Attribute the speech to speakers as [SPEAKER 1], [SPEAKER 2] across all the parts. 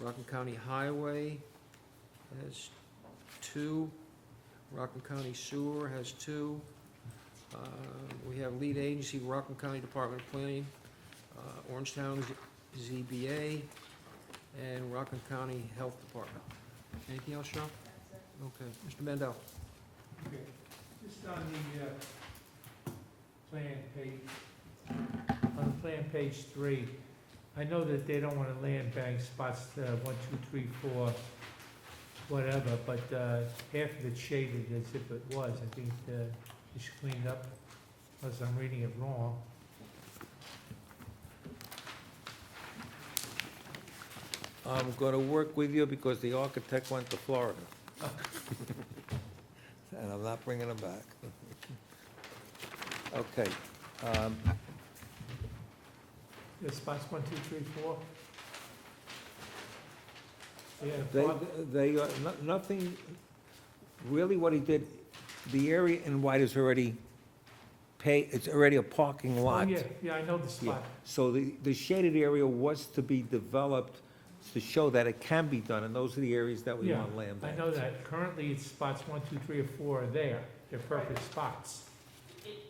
[SPEAKER 1] Rockland County Highway has two. Rockland County Sewer has two. Uh, We have lead agency, Rockland County Department of Planning, uh, Orange Town Z- ZBA, and Rockland County Health Department. Anything else, Sean? Okay, Mr. Mendel?
[SPEAKER 2] Okay, just on the, uh, plan page, on plan page three, I know that they don't wanna land bank spots, uh, one, two, three, four, whatever, but, uh, half of it's shaded as if it was, I think, uh, it should clean it up, unless I'm reading it wrong.
[SPEAKER 3] I'm gonna work with you because the architect went to Florida. And I'm not bringing him back. Okay, um,
[SPEAKER 2] The spots one, two, three, four? Yeah,
[SPEAKER 3] they,
[SPEAKER 2] Bob,
[SPEAKER 3] they, are- no- nothing, really what he did, the area in white is already pay, it's already a parking
[SPEAKER 2] oh,
[SPEAKER 3] lot.
[SPEAKER 2] yeah, yeah, I know the
[SPEAKER 3] Yeah,
[SPEAKER 2] spot.
[SPEAKER 3] so the, the shaded area was to be developed to show that it can be done, and those are the areas that we
[SPEAKER 2] Yeah,
[SPEAKER 3] want land
[SPEAKER 2] I
[SPEAKER 3] banks.
[SPEAKER 2] know that currently it's spots one, two, three, or four are there, they're perfect spots.
[SPEAKER 4] It,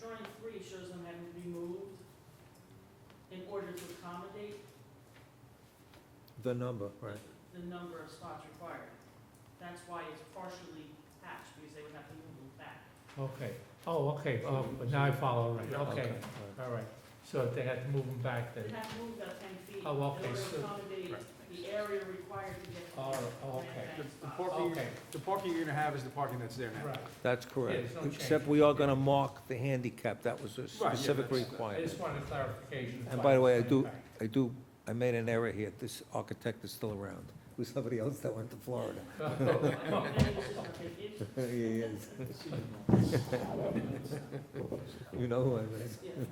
[SPEAKER 4] drawing three shows them having to be moved in order to accommodate
[SPEAKER 3] The number, right.
[SPEAKER 4] the number of spots required. That's why it's partially hatched, because they would have to move them back.
[SPEAKER 2] Okay, oh, okay, oh, but now I follow, right, okay,
[SPEAKER 3] all right.
[SPEAKER 2] all right. So if they had to move them back then,
[SPEAKER 4] They'd have to move about ten feet in
[SPEAKER 2] Oh,
[SPEAKER 4] order
[SPEAKER 2] okay,
[SPEAKER 4] to
[SPEAKER 2] so-
[SPEAKER 4] accommodate the area required to get.
[SPEAKER 2] Oh, okay. Oh.
[SPEAKER 4] the land
[SPEAKER 5] The the
[SPEAKER 4] bank spots.
[SPEAKER 5] parking,
[SPEAKER 2] Okay.
[SPEAKER 5] the parking you're gonna have is the parking that's there now.
[SPEAKER 2] right.
[SPEAKER 3] That's
[SPEAKER 2] there's
[SPEAKER 3] correct,
[SPEAKER 2] no change.
[SPEAKER 3] except we are gonna mark the handicap, that was a
[SPEAKER 5] yeah,
[SPEAKER 3] specific
[SPEAKER 5] that's-
[SPEAKER 2] I just
[SPEAKER 3] requirement.
[SPEAKER 2] wanted clarification.
[SPEAKER 3] And by the way, I
[SPEAKER 2] about
[SPEAKER 3] do-
[SPEAKER 2] that fact.
[SPEAKER 3] I do, I made an error here, this architect is still around, it was somebody else that went to Florida.
[SPEAKER 4] And then it's just gonna take it-
[SPEAKER 3] Yeah, he is. You know who I mean.
[SPEAKER 4] yeah.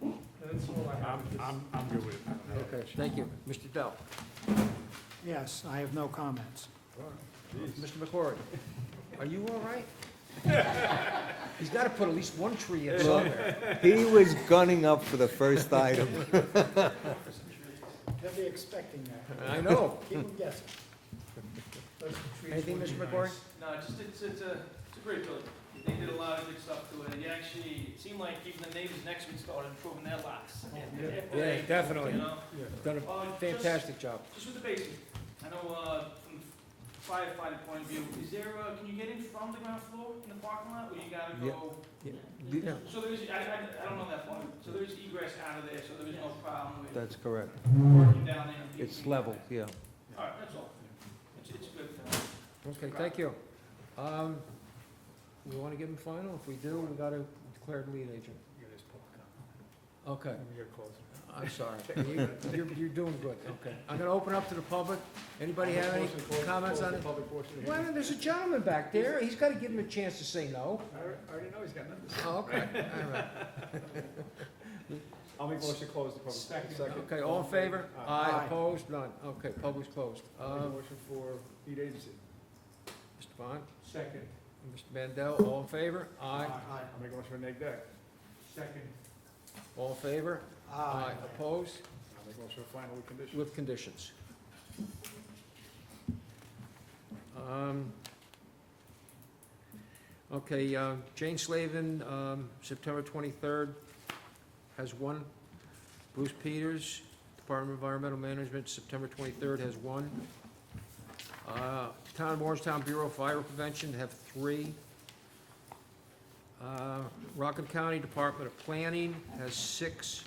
[SPEAKER 2] That's all I
[SPEAKER 5] I'm,
[SPEAKER 2] have.
[SPEAKER 5] I'm, I'm good with it. I don't have-
[SPEAKER 1] Thank you. Mr. Dell?
[SPEAKER 6] Yes, I have no comments.
[SPEAKER 1] Mr. McCord, are you all right? He's gotta put at least one tree in somewhere.
[SPEAKER 3] He was gunning up for the first item.
[SPEAKER 6] They'll be expecting that.
[SPEAKER 1] I know.
[SPEAKER 6] Keep them guessing.
[SPEAKER 2] Those trees
[SPEAKER 1] Anything,
[SPEAKER 2] would be
[SPEAKER 1] Mr.
[SPEAKER 2] nice.
[SPEAKER 1] McGuire?
[SPEAKER 7] No, it's just, it's, it's a, it's a great building. They did a lot of good stuff to it. It actually, it seemed like even the neighbors next week started improving their lots.
[SPEAKER 1] Yeah,
[SPEAKER 7] You
[SPEAKER 1] definitely.
[SPEAKER 7] know?
[SPEAKER 1] Done
[SPEAKER 7] Uh,
[SPEAKER 1] a
[SPEAKER 7] just-
[SPEAKER 1] fantastic job.
[SPEAKER 7] Just with the basement, I know, uh, from firefighter point of view, is there, uh, can you get in from the ground floor in the parking lot, or you gotta
[SPEAKER 3] Yeah.
[SPEAKER 7] go?
[SPEAKER 3] Yeah.
[SPEAKER 1] Yeah.
[SPEAKER 7] So there's, I, I, I don't know that far. So there's egress out of there, so there is no problem with
[SPEAKER 3] That's correct,
[SPEAKER 7] working down there. and people
[SPEAKER 3] it's
[SPEAKER 7] being-
[SPEAKER 3] level, yeah.
[SPEAKER 7] All right, that's all. It's, it's good. uh,
[SPEAKER 1] Okay, thank you. Um, we wanna give him final? If we do, we gotta declare him lead agent.
[SPEAKER 5] You gotta just pull it out.
[SPEAKER 1] Okay,
[SPEAKER 5] We gotta close it
[SPEAKER 1] I'm sorry. You- You're, you're doing good, okay. I'm gonna open up to the public. Anybody have any
[SPEAKER 5] Motion to close-
[SPEAKER 1] comments
[SPEAKER 5] close
[SPEAKER 1] on
[SPEAKER 5] the
[SPEAKER 1] it?
[SPEAKER 5] public portion of the
[SPEAKER 1] Well,
[SPEAKER 5] hearing.
[SPEAKER 1] there's a gentleman back there. He's gotta give him a chance to say no.
[SPEAKER 5] I alre- I already know he's got nothing to say.
[SPEAKER 1] Oh, Okay, all right.
[SPEAKER 5] I'll make motion to close the public. Second.
[SPEAKER 1] Okay, all in favor? Aye,
[SPEAKER 6] Aye.
[SPEAKER 1] opposed, none. Okay, public's closed.
[SPEAKER 5] I'll
[SPEAKER 1] Uh,
[SPEAKER 5] make motion for lead agency.
[SPEAKER 1] Mr. Bond,
[SPEAKER 2] Second,
[SPEAKER 1] Mr. Mandel, all in favor? Aye,
[SPEAKER 5] I'll make motion for neg deck.
[SPEAKER 2] second.
[SPEAKER 1] all in favor? Aye, opposed,
[SPEAKER 5] I'll make motion for final with condition.
[SPEAKER 1] with conditions. Um, Okay, uh, Jane Slavin, um, September 23rd, has one. Bruce Peters, Department of Environmental Management, September 23rd, has one. Uh, Town of Orangetown Bureau of Fire Prevention have three. Uh, Rockland County Department of Planning has six.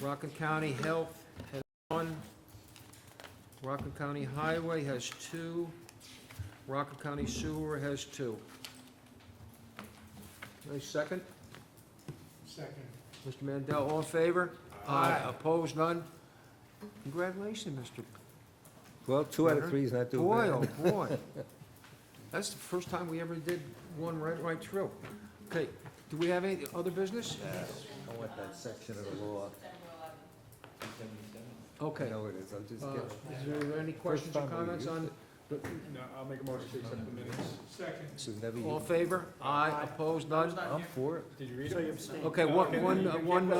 [SPEAKER 1] Rockland County Health has one. Rockland County Highway has two. Rockland County Sewer has two. Any second?
[SPEAKER 2] Second.
[SPEAKER 1] Mr. Mandel, all in favor?
[SPEAKER 2] Aye.
[SPEAKER 1] Opposed, none? Congratulations, Mr.
[SPEAKER 3] Well, two out of three is not too
[SPEAKER 1] Boy,
[SPEAKER 3] bad.
[SPEAKER 1] oh, boy. That's the first time we ever did one right, right through. Okay, do we have any other business?
[SPEAKER 3] I want that section of the law, I
[SPEAKER 1] Okay.
[SPEAKER 3] know it is, I'm just
[SPEAKER 1] Uh,
[SPEAKER 3] kidding.
[SPEAKER 1] Is there any questions or
[SPEAKER 3] time we
[SPEAKER 1] comments on,
[SPEAKER 5] No, I'll make a motion to accept the minutes.
[SPEAKER 2] Second.
[SPEAKER 3] This is never
[SPEAKER 1] all in
[SPEAKER 3] used.
[SPEAKER 1] favor? Aye, opposed, none?
[SPEAKER 3] I'm for it.
[SPEAKER 5] Did you read it?
[SPEAKER 6] So you abstain.
[SPEAKER 1] Okay, one, one, uh, one, uh,